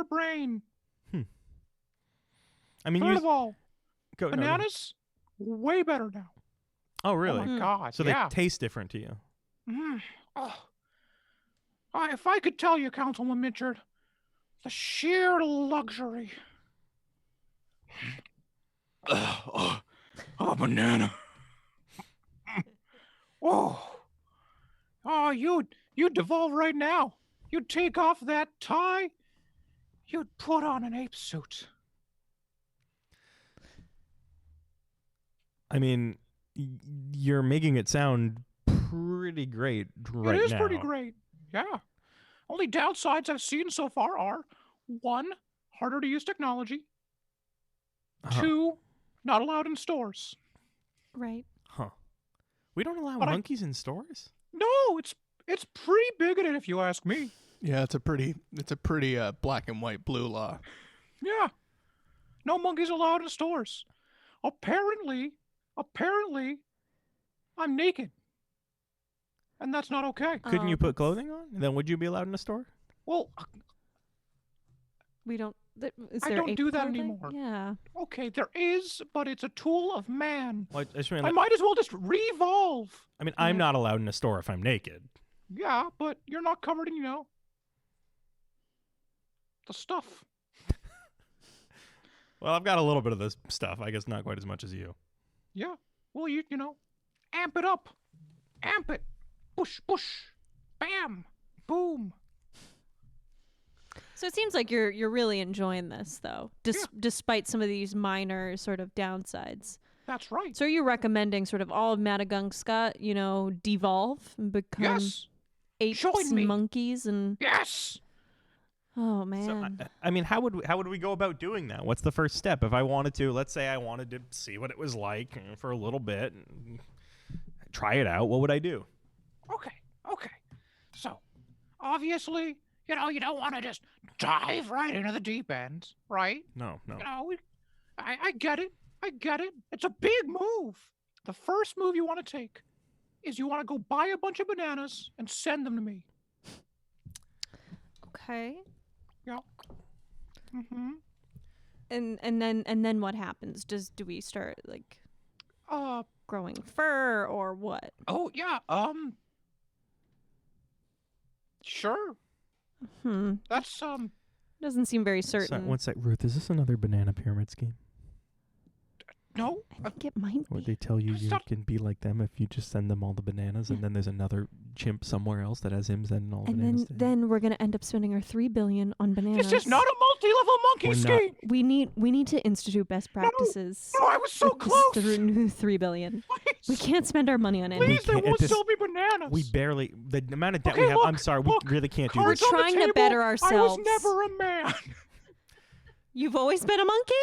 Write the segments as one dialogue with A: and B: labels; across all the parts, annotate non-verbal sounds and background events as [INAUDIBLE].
A: your brain.
B: I mean,
A: Third
B: you
A: of all,
B: go, no, go ahead.
A: bananas way better now.
B: oh, really?
A: Oh my god.
B: so they
A: yeah.
B: taste different to you.
A: Mm. Oh. I, if I could tell you, Councilman Mitchard, the sheer luxury.
C: Ugh, [SIGHS] oh, oh, banana.
A: [LAUGHS] Oh, oh, you'd you'd devolve right now. You'd take off that tie. You'd put on an ape suit.
B: I mean, y- you're making it sound pretty great right
A: it is
B: now.
A: pretty great. Yeah. Only downsides I've seen so far are one, harder to use technology.
B: Huh.
A: Two, not allowed in stores.
D: Right.
B: Huh. We don't allow
A: But I-
B: monkeys in stores?
A: No, it's it's pretty bigoted if you ask me.
E: Yeah, it's a pretty it's a pretty uh, black and white blue law.
A: Yeah. No monkeys allowed in stores. Apparently, apparently, I'm naked. And that's not okay.
B: Couldn't you
D: Um,
B: put clothing on? Then would you be allowed in a store?
A: Well,
D: We don't. Th- is
A: I
D: there
A: don't
D: ape
A: do that
D: clothing?
A: anymore.
D: Yeah.
A: okay, there is, but it's a tool of man.
B: Well, I, just mean,
A: I might as well just revolve.
B: I mean, I'm
D: Yeah.
B: not allowed in a store if I'm naked.
A: Yeah, but you're not covered in, you know, the stuff.
B: Well, I've got a little bit of this stuff. I guess not quite as much as you.
A: Yeah. Well, you, you know, amp it up. Amp it. Push, push. Bam. Boom.
D: So it seems like you're you're really enjoying this though, dis- despite some of these minor sort of downsides.
A: That's right.
D: So are you recommending sort of all of Madagungska, you know, devolve and become
A: Yes.
D: apes
A: join
D: and
A: me.
D: monkeys and
A: Yes.
D: oh
B: So, I,
D: man.
A: Mm.
B: I- I mean, how would we, how would we go about doing that? What's the first step? If I wanted to, let's say I wanted to see what it was like mm, for a little bit, mm, try it out. What would I do?
A: Okay, okay. So, obviously, you know, you don't want to just dive right into the deep end, right?
B: No, no.
A: You know, we- I, I get it. I get it. It's a big move. The first move you want to take is you want to go buy a bunch of bananas and send them to me.
D: okay.
A: Mm-hmm.
D: And and then and then what happens? Does do we start like
A: Uh,
D: growing fur or what?
A: oh, yeah, um. Sure.
D: Hmm.
A: That's, um,
D: Doesn't seem very
B: So-
D: certain.
B: one sec, Ruth. Is this another banana pyramid scheme?
A: no.
D: I think it might
B: Where
D: be.
B: they tell you
A: It's
B: you
A: not-
B: can be like them if you just send them all the bananas, and then there's another chimp somewhere else that has him sending all the
D: and
B: bananas.
D: then
B: to him.
D: then we're gonna end up spending our three billion on bananas.
A: This is not a multi level monkey
B: We're not-
A: scheme.
D: We need we need to institute best practices.
A: No, I was so
D: with this
A: close.
D: through [LAUGHS] new three billion. We
A: Please,
D: can't spend our money on anything.
A: please they
B: can't- at
A: won't
B: this-
A: sell me bananas.
B: we barely the amount of debt we
A: Okay,
B: have. I'm
A: look,
B: sorry,
A: look,
B: we really can't do
A: Cards
B: this.
D: We're
A: on the
D: trying to
A: table.
D: better
A: I was
D: ourselves.
A: never a man. [LAUGHS]
D: You've always been a monkey?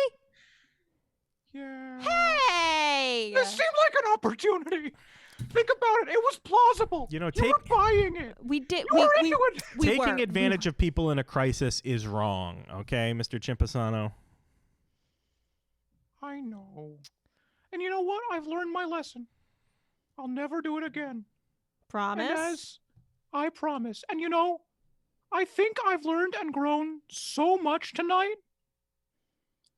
A: Yeah.
D: Hey!
A: This seemed like an opportunity. Think about it. It was plausible.
B: You know,
A: you were
B: take-
A: buying it.
D: We did.
A: You
D: We,
A: were
D: we,
A: into it.
D: we
B: Taking
D: were.
B: advantage of people in a crisis is wrong. Okay, Mr. Chimpasano.
A: I know. And you know what? I've learned my lesson. I'll never do it again.
D: [LAUGHS] Promise.
A: And as I promise. And you know, I think I've learned and grown so much tonight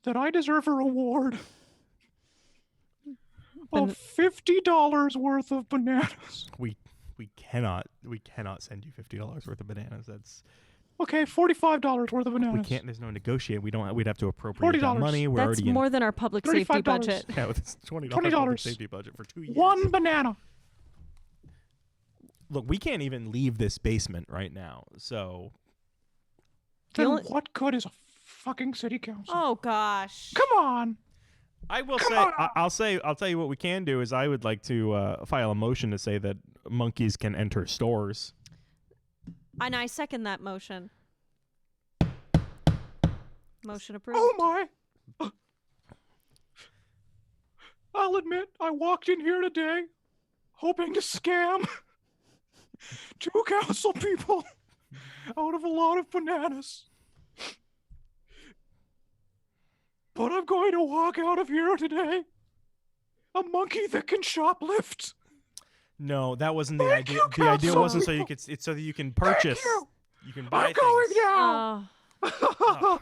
A: that I deserve a reward
D: Ban-
A: of fifty dollars worth of bananas.
B: We we cannot we cannot send you fifty dollars worth of bananas. That's
A: Okay, forty-five dollars worth of bananas.
B: we can't. There's no negotiate. We don't. We'd have to appropriate that
A: $40.
B: money. We're
D: That's
B: already
D: more than our public safety
A: $35.
D: budget.
B: in. [LAUGHS] Yeah, with this twenty
A: $20.
B: dollars safety budget for two years.
A: One banana.
B: Look, we can't even leave this basement right now. So
D: The
A: Then
D: only-
A: what good is a fucking city council?
D: Oh gosh.
A: Come on.
B: I will
A: Come
B: say,
A: on.
B: I, I'll say, I'll tell you what we can do is I would like to uh, file a motion to say that monkeys can enter stores.
D: And I second that motion. Motion approved.
A: Oh my. I'll admit, I walked in here today hoping to scam [LAUGHS] two council people out of a lot of bananas. But I'm going to walk out of here today a monkey that can shoplift.
B: No, that wasn't the
A: Thank
B: idea.
A: you,
B: the idea wasn't so you
A: Council.
B: could. It's so that you can
A: Thank
B: purchase.
A: you.
B: You can buy
A: I'm going
B: things.
A: now.
D: Oh,